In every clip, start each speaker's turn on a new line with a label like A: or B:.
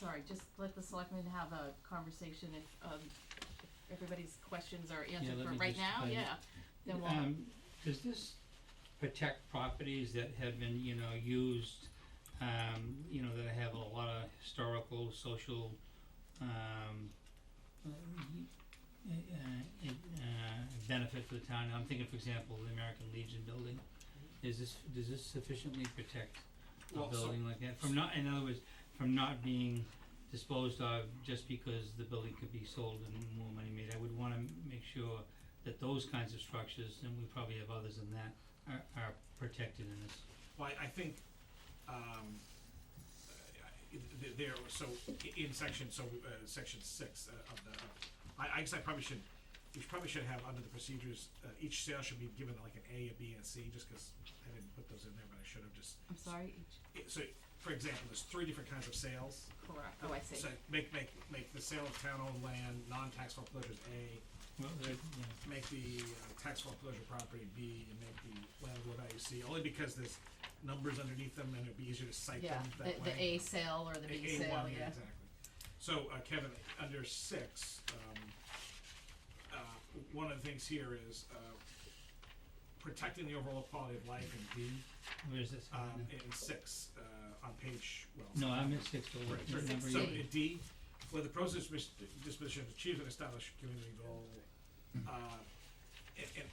A: sorry, just let the selectmen have a conversation if, um, if everybody's questions are answered
B: let
A: for
B: me
A: right
B: just
A: now,
B: find-
A: yeah, then we'll.
B: Um, does this protect properties that have been, you know, used, um, you know, that have a lot of historical, social, um, uh, uh, uh, benefit for the town? I'm thinking, for example, the American Legion building. Is this, does this sufficiently protect a
C: Well, so-
B: building like that from not, in other words, from not being disposed of just because the building could be sold and more money made? I would wanna make sure that those kinds of structures, and we probably have others than that, are, are protected in this.
C: Well, I, I think, um, uh, th- there, so, i- in section, so, uh, section six uh, of the, of- I, I guess I probably should, we should- probably should have under the procedures, uh, each sale should be given like an A, a B, and a C, just cause I didn't put those in there, but I should have just.
A: I'm sorry, each,
C: i- So, for example, there's three different kinds of sales.
A: correct, oh, I see,
C: So make, make, make the sale of town-owned land, non-taxable foreclosures A,
B: Well, there- yeah.
C: make the uh, tax foreclosure property B and make the landlord IUC, only because there's numbers underneath them and it'd be easier to cite
A: yeah,
C: them
A: the,
C: that way.
A: the A sale or the B
C: A- A1,
A: sale, yeah,
C: Exactly. So, uh, Kevin, under six, um, uh, one of the things here is, uh, protecting the overall quality of life in B,
B: where is this?
C: um, in six, uh, on page, well.
B: No, I'm in six, so
C: Right,
B: it's
C: right.
B: number
C: So,
B: eight.
C: uh, D, where the process which disposition achieves an established community goal, uh, and, and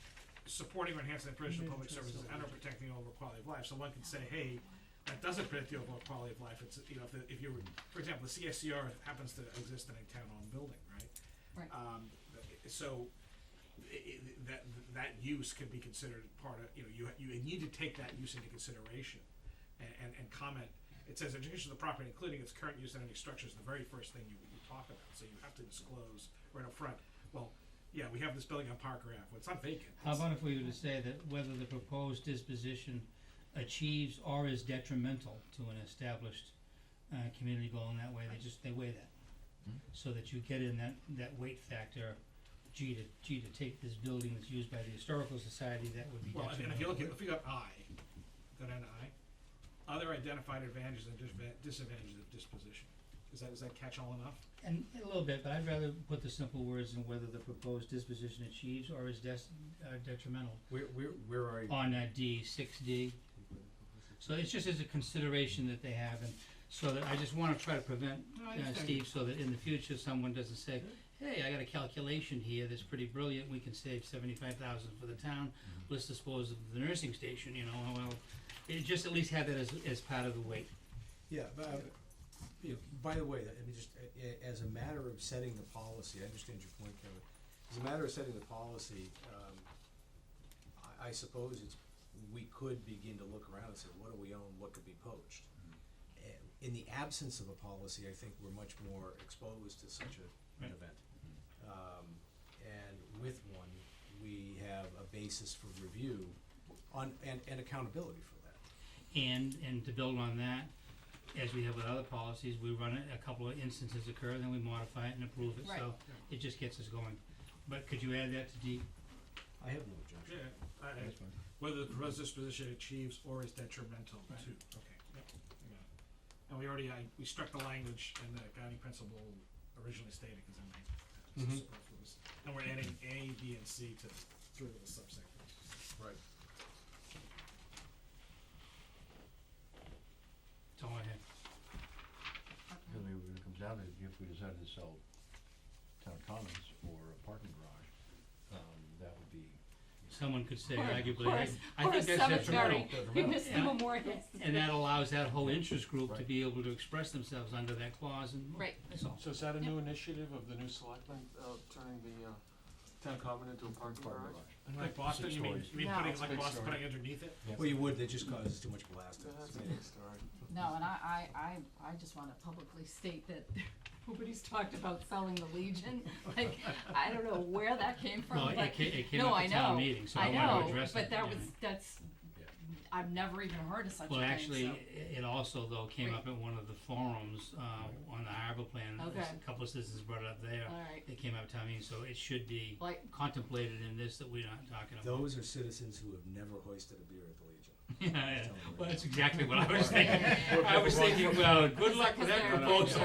C: supporting or enhancing the provision of public services and or protecting the overall quality of life, so one can say, hey, that doesn't protect the overall quality of life, it's, you know, if, the- if you, were- for example, the CSCR happens to exist in a town-owned building, right?
A: Right.
C: Um, th- so, i- i- that, that use could be considered part of, you know, you, you need to take that use into consideration and, and, and comment. It says education of the property, including its current use and any structure, is the very first thing you, you talk about, so you have to disclose right up front, well, yeah, we have this building on Parker Ave, well, it's not vacant.
B: How
C: It's-
B: about if we were to say that whether the proposed disposition achieves or is detrimental to an established, uh, community goal in that way, they just, they weigh that. So that you get in that, that weight factor, gee to, gee to take this building that's used by the historical society, that would be
C: Well,
B: detrimental.
C: and and if you look at, if you got I, go down to I, other identified advantages and disva- disadvantages of disposition, is that, does that catch all enough?
B: And a little bit, but I'd rather put the simple words in whether the proposed disposition achieves or is des- uh, detrimental
D: Where, where, where are you?
B: on uh, D, six D. So it's just as a consideration that they have and so that I just wanna try to prevent,
C: I
B: uh,
C: understand.
B: Steve, so that in the future, someone doesn't say, hey, I got a calculation here that's pretty brilliant, we can save seventy-five thousand for the town, let's dispose of the nursing station, you know, well, it just at least have that as, as part of the weight.
E: Yeah, but, uh, you know, by the way, I mean, just a- a- as a matter of setting the policy, I understand your point, Kevin. As a matter of setting the policy, um, I, I suppose it's, we could begin to look around and say, what do we own, what could be poached?
B: Mm-hmm.
E: Eh, In the absence of a policy, I think we're much more exposed to such a,
B: Right.
E: an
B: Mm-hmm.
E: event. Um, and with one, we have a basis for review on, and, and accountability for that.
B: And, and to build on that, as we have with other policies, we run it, a couple of instances occur, then we modify it and approve it,
A: Right.
B: so it just gets us going. But could you add that to D?
E: I have no objection.
C: Yeah, I, I- whether the proposed disposition achieves or is detrimental to,
B: Right.
C: okay, yep, I got it. And we already, I, we struck the language in the guiding principle originally stated, cause it might, uh,
B: Mhm.
C: superfluous. And we're adding A, B, and C to, through the subsections.
E: Right.
B: That's all I have.
D: Really, what it comes down to, if we decided to sell town commons or a parking garage, um, that would be.
B: Someone could say
A: Or-
B: arguably,
A: or a
B: I,
A: s-
B: I
A: or a
B: think that's
A: cemetery.
B: detrimental.
A: We
D: Detrimental.
A: missed the memorial,
B: And that allows that whole interest group to
D: Right.
B: be able to express themselves under that clause and,
A: right,
B: that's all.
F: So is that a
A: Yep.
F: new initiative of the new selectmen, of turning the, uh, town common into a parking
D: Parking
F: garage?
D: garage.
C: And like Boston,
D: Six
C: you mean,
D: stories.
C: you mean
A: No.
C: putting,
A: It's
F: a
C: like
F: big
C: Boston,
F: story.
C: putting underneath it?
E: Well, you would, that just causes too much blasting.
F: That's a big story.
A: no, and I, I, I, I just wanna publicly state that nobody's talked about selling the Legion, like, I don't know where that came from,
B: Well,
A: but.
B: it came, it came
A: no,
B: up
A: I
B: at town
A: know.
B: meeting, so I
A: I
B: wanted to
A: know,
B: address it.
A: but that
B: you
A: was,
B: know.
A: that's,
D: Yeah.
A: I've never even heard of such a thing,
B: Well, actually,
A: so-
B: i- it also though came up at one of the forums, uh, on the harbor plan,
A: Okay. Uh.
B: a couple of citizens brought it up there.
A: All right.
B: It came up at town meeting, so it should be
A: Like-
B: contemplated in this that we're not talking about.
E: Those are citizens who have never hoisted a beer at the Legion.
B: Yeah, yeah.
E: Tell them.
B: well, that's exactly what I was thinking.
A: Yeah, yeah, yeah.
B: I was thinking, well, good luck
A: Because
B: with that
A: they're-
B: proposal.